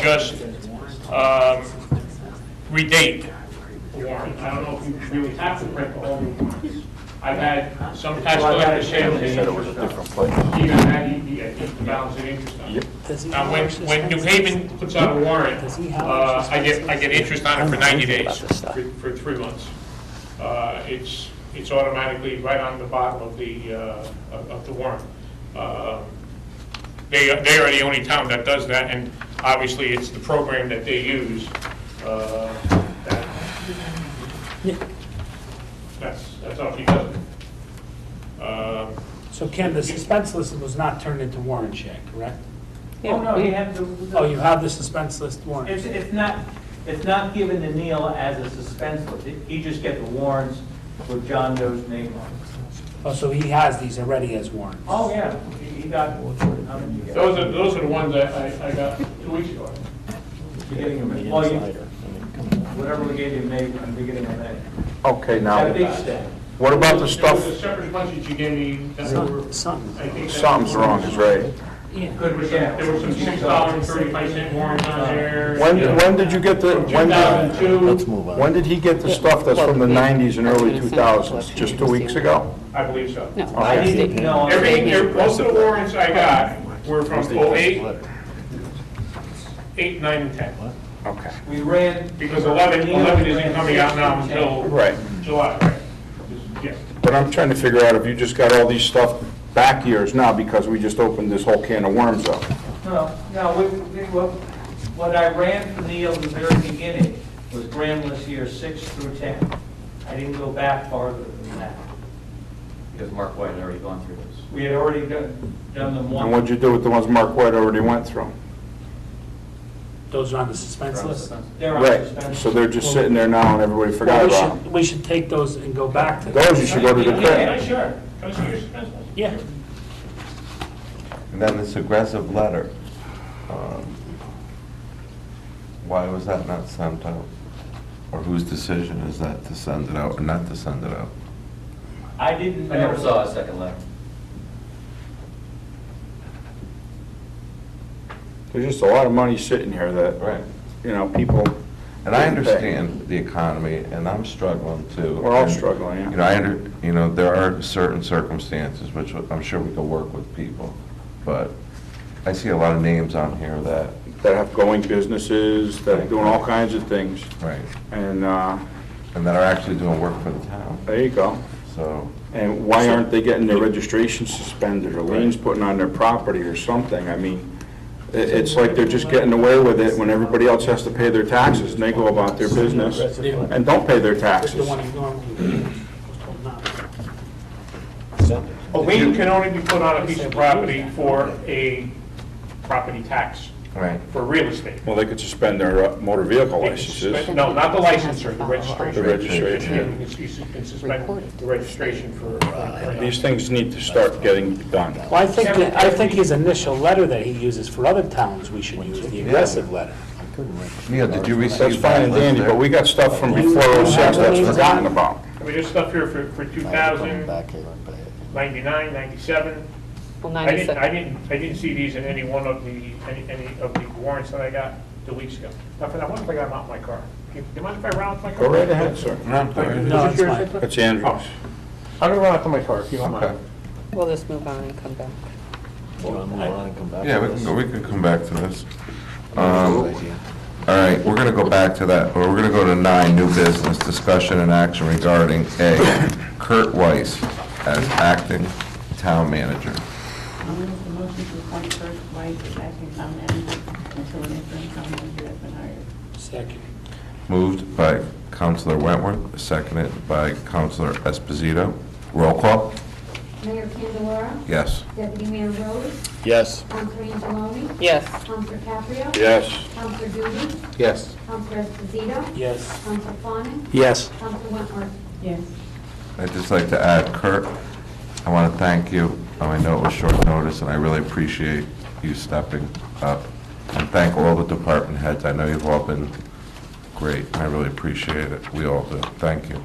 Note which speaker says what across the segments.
Speaker 1: just um, redate the warrant. I don't know if you really have to print all the warrants. I've had some tax collectors say that they
Speaker 2: Said it was a different place.
Speaker 1: even had the, the- the balance of interest on it. Now, when, when New Haven puts out a warrant, uh, I get, I get interest on it for 90 days, for- for three months. Uh, It's, it's automatically right on the bottom of the, uh, of of the warrant. Uh, They, they are the only town that does that, and obviously, it's the program that they use. uh, that- That's, that's how she does it. Uh,
Speaker 3: So Ken, the suspense list was not turned into warrant check, correct?
Speaker 4: Oh, no, you have to.
Speaker 3: Oh, you have the suspense list warrant.
Speaker 4: It's, it's not, it's not given to Neil as a suspense list. You just get the warrants with John Doe's name on it.
Speaker 3: Oh, so he has these already as warrants?
Speaker 4: Oh, yeah, he he got, how many you
Speaker 1: Those
Speaker 4: get?
Speaker 1: are, those are the ones that I, I got two weeks ago.
Speaker 4: You're getting them, well, you, whatever we gave you in May, I'm beginning of May.
Speaker 2: Okay, now,
Speaker 4: That big stack.
Speaker 2: what about
Speaker 1: There
Speaker 2: the
Speaker 1: was a
Speaker 2: stuff,
Speaker 1: separate bunch that you gave me that were,
Speaker 3: Some-
Speaker 1: I
Speaker 3: Something.
Speaker 1: think. that-
Speaker 2: something's wrong, is right.
Speaker 1: There were some, there were some six dollar and thirty-five cent warrants on there.
Speaker 2: When, when did you get the,
Speaker 1: Two
Speaker 2: when
Speaker 1: thousand
Speaker 2: did,
Speaker 5: Let's
Speaker 1: two,
Speaker 5: move on.
Speaker 2: when did he get the stuff that's from the nineties and early two thousands? Just two weeks ago?
Speaker 1: I believe so.
Speaker 6: No.
Speaker 4: I didn't know.
Speaker 1: Every, every- most of the warrants I got were from oh eight, eight, nine, and ten.
Speaker 2: Okay.
Speaker 4: We ran.
Speaker 1: Because eleven, eleven isn't coming out now until
Speaker 2: Right,
Speaker 1: July, right? Yes.
Speaker 2: but I'm trying to figure out if you just got all these stuff back years now because we just opened this whole can of worms up.
Speaker 4: No, no, we, we, what, what I ran for Neil at the very beginning was grand list year six through ten. I didn't go back farther than that.
Speaker 7: Because Mark White had already gone through this.
Speaker 4: We had already done, done them
Speaker 2: And
Speaker 4: once.
Speaker 2: what'd you do with the ones Mark White already went through?
Speaker 3: Those are on the suspense list?
Speaker 4: They're on
Speaker 2: Right,
Speaker 4: suspension.
Speaker 2: so they're just sitting there now and everybody
Speaker 3: Well,
Speaker 2: forgot
Speaker 3: we
Speaker 2: about them.
Speaker 3: should, we should take those and go back to.
Speaker 2: Those you should go to the
Speaker 1: Yeah,
Speaker 2: print.
Speaker 1: sure. Go see your specials.
Speaker 3: Yeah.
Speaker 8: And then this aggressive letter, um, why was that not sent out? Or whose decision is that to send it out or not to send it out?
Speaker 4: I didn't
Speaker 7: I never
Speaker 4: know.
Speaker 7: saw a second letter.
Speaker 2: There's just a lot of money sitting here that, you know, people.
Speaker 8: And I understand the economy, and I'm struggling too.
Speaker 2: We're all
Speaker 8: And,
Speaker 2: struggling, yeah.
Speaker 8: You know, I, under- you know, there are certain circumstances which I'm sure we could work with people, but I see a lot of names on here that,
Speaker 2: That have going businesses, that are doing all kinds of things.
Speaker 8: right,
Speaker 2: And, uh,
Speaker 8: and that are actually doing work for the town,
Speaker 2: there you go.
Speaker 8: so.
Speaker 2: And why aren't they getting their registration suspended or liens putting on their property or something? I mean, i- it's like they're just getting away with it when everybody else has to pay their taxes and they go about their business and don't pay their
Speaker 3: The
Speaker 2: taxes.
Speaker 3: one you normally. was told not to.
Speaker 1: A lien can only be put on a piece of property for a property tax,
Speaker 8: Right.
Speaker 1: for real estate.
Speaker 2: Well, they could suspend their uh, motor vehicle
Speaker 1: They can
Speaker 2: licenses,
Speaker 1: suspend- No, not the license or the
Speaker 2: the
Speaker 1: registration.
Speaker 2: registration.
Speaker 1: You can you can suspend the registration for. uh,
Speaker 2: These things need to start getting done.
Speaker 3: Well, I think, that- I think his initial letter that he uses for other towns, we should use the aggressive letter.
Speaker 8: Neil, did you receive that?
Speaker 2: That's fine and
Speaker 8: letter?
Speaker 2: dandy, but we got stuff from before '06 that's forgotten about.
Speaker 1: I mean, there's stuff here for, for 2000, 99, 97.
Speaker 6: Well,
Speaker 1: I didn't, I
Speaker 6: 97,
Speaker 1: didn't, I didn't see these in any one of the, any, any of the warrants that I got two weeks ago. Now, I wonder if I got them out in my car. Do you mind if I round up my car?
Speaker 2: Go right ahead, sir.
Speaker 8: No, sorry.
Speaker 3: No, it's fine.
Speaker 2: That's Andrews.
Speaker 1: I'm gonna run out to my car if you don't
Speaker 8: Okay.
Speaker 6: we'll just move on and come back.
Speaker 8: Yeah, we can, go- we can come back to this. Um, All right, we're going to go back to that, or we're going to go to nine, new business, discussion and action regarding A, Kurt Weiss as acting town manager.
Speaker 9: I'll make the motion to appoint Kurt White as acting town manager until an interim town manager has been hired.
Speaker 3: Second.
Speaker 8: Moved by Counselor Wentworth, seconded by Counselor Esposito. Roll call?
Speaker 10: Mayor Candelara,
Speaker 8: Yes.
Speaker 10: Deputy Mayor Rose,
Speaker 5: Yes.
Speaker 10: Counselor Angeloni,
Speaker 6: Yes,
Speaker 10: Counselor Caprio,
Speaker 2: Yes.
Speaker 10: Counselor Duty,
Speaker 8: Yes.
Speaker 10: Counselor Esposito,
Speaker 3: Yes.
Speaker 10: Counselor Fawnin,
Speaker 5: Yes.
Speaker 10: Counselor Wentworth.
Speaker 9: Yes.
Speaker 8: I'd just like to add, Kurt, I want to thank you. Um, I know it was short notice, and I really appreciate you stepping up. And thank all the department heads. I know you've all been great. I really appreciate it. We all do. Thank you.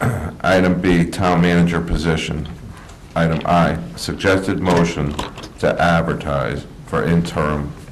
Speaker 8: Item B, town manager position. Item I, suggested motion to advertise for interim